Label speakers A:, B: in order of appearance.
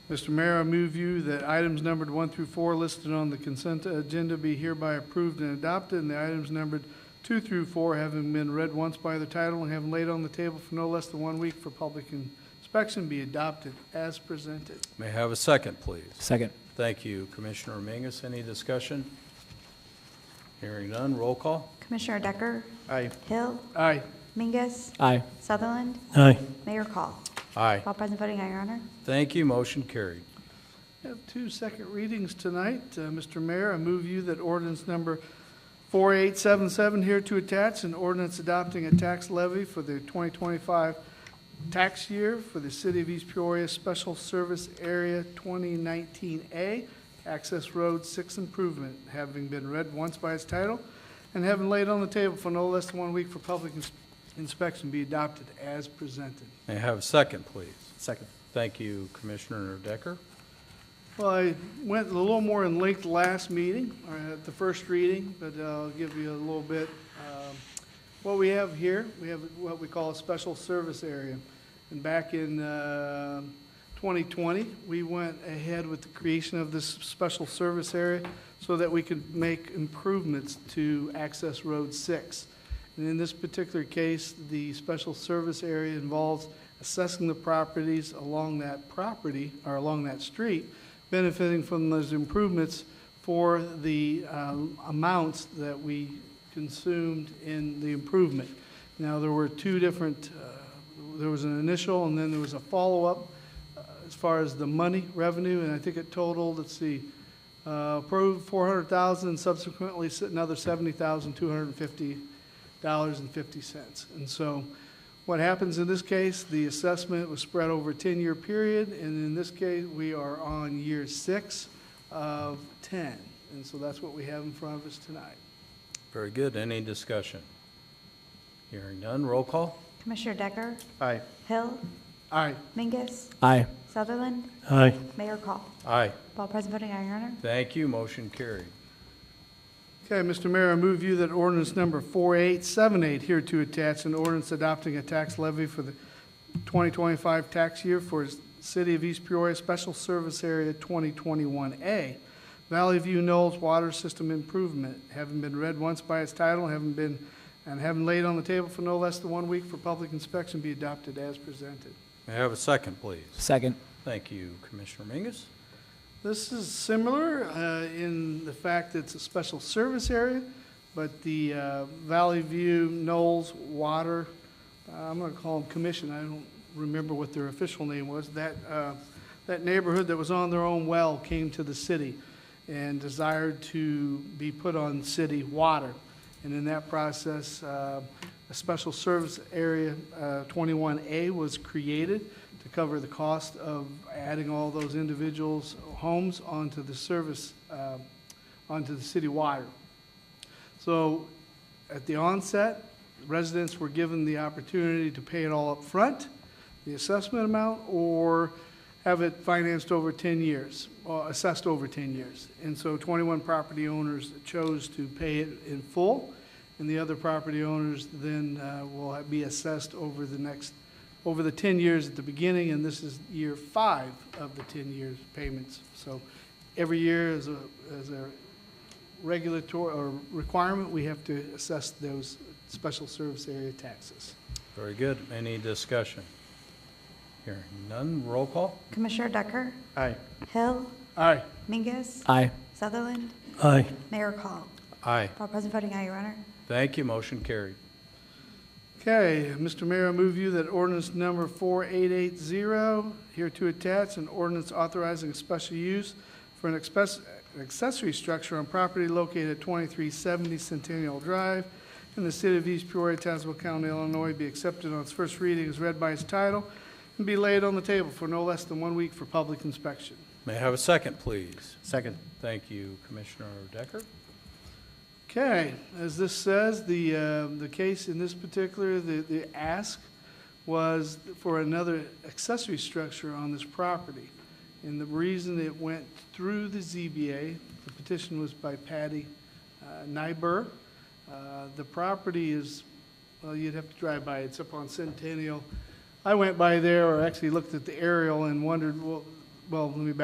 A: Mr. Mayor, I move you that items numbered one through four listed on the consent agenda be hereby approved and adopted, and the items numbered two through four having been read once by the title and having laid on the table for no less than one week for public inspection be adopted as presented.
B: May I have a second, please?
C: Second.
B: Thank you, Commissioner Mingus. Any discussion? Hearing none, roll call.
D: Commissioner Decker?
A: Aye.
D: Hill?
A: Aye.
D: Mingus?
C: Aye.
D: Sutherland?
C: Aye.
D: Mayor Call?
B: Aye.
D: All present voting, aye, Your Honor.
B: Thank you, motion carried.
A: We have two second readings tonight. Uh, Mr. Mayor, I move you that ordinance number 4877 here to attach, an ordinance adopting a tax levy for the 2025 tax year for the City of East Peoria Special Service Area 2019A, Access Road 6 improvement, having been read once by its title and having laid on the table for no less than one week for public ins- inspection, be adopted as presented.
B: May I have a second, please?
C: Second.
B: Thank you, Commissioner Decker.
A: Well, I went a little more in length last meeting, or at the first reading, but uh, I'll give you a little bit. Um, What we have here, we have what we call a special service area. And back in uh, 2020, we went ahead with the creation of this special service area so that we could make improvements to Access Road 6. And in this particular case, the special service area involves assessing the properties along that property, or along that street, benefiting from those improvements for the um, amounts that we consumed in the improvement. Now, there were two different, uh, there was an initial, and then there was a follow-up uh, as far as the money revenue, and I think it totaled, let's see, uh, approved 400,000, subsequently s- another 70,250 dollars and fifty cents. And so what happens in this case, the assessment was spread over a ten-year period, and in this case, we are on year six of ten. And so that's what we have in front of us tonight.
B: Very good. Any discussion? Hearing none, roll call.
D: Commissioner Decker?
A: Aye.
D: Hill?
A: Aye.
D: Mingus?
C: Aye.
D: Sutherland?
C: Aye.
D: Mayor Call?
B: Aye.
D: All present voting, aye, Your Honor.
B: Thank you, motion carried.
A: Okay, Mr. Mayor, I move you that ordinance number 4878 here to attach, an ordinance adopting a tax levy for the 2025 tax year for the City of East Peoria Special Service Area 2021A, Valley View Knolls Water System Improvement, having been read once by its title, having been, and having laid on the table for no less than one week for public inspection, be adopted as presented.
B: May I have a second, please?
C: Second.
B: Thank you, Commissioner Mingus.
A: This is similar uh, in the fact that it's a special service area, but the uh, Valley View, Knowles, Water, uh, I'm going to call them commission, I don't remember what their official name was, that, uh, that neighborhood that was on their own well came to the city and desired to be put on city water. And in that process, uh, a special service area uh, 21A was created to cover the cost of adding all those individuals' homes onto the service, uh, onto the city water. So at the onset, residents were given the opportunity to pay it all up front, the assessment amount, or have it financed over 10 years, or assessed over 10 years. And so 21 property owners chose to pay it in full, and the other property owners then uh, will be assessed over the next, over the 10 years at the beginning, and this is year five of the 10 years payments. So every year is a, is a regulatory or requirement, we have to assess those special service area taxes.
B: Very good. Any discussion? Hearing none, roll call.
D: Commissioner Decker?
A: Aye.
D: Hill?
A: Aye.
D: Mingus?
C: Aye.
D: Sutherland?
C: Aye.
D: Mayor Call?
B: Aye.
D: All present voting, aye, Your Honor.
B: Thank you, motion carried.
A: Okay, Mr. Mayor, I move you that ordinance number 4880, here to attach, an ordinance authorizing a special use for an express- an accessory structure on property located at 2370 Centennial Drive in the city of East Peoria, Tazewell County, Illinois, be accepted on its first reading as read by its title and be laid on the table for no less than one week for public inspection.
B: May I have a second, please?
C: Second.
B: Thank you, Commissioner Decker.
A: Okay, as this says, the, uh, the case in this particular, the, the ask was for another accessory structure on this property. And the reason it went through the ZBA, the petition was by Patty uh, Nyber. Uh, The property is, well, you'd have to drive by, it's up on Centennial. I went by there, or actually looked at the aerial and wondered, well, well, let me back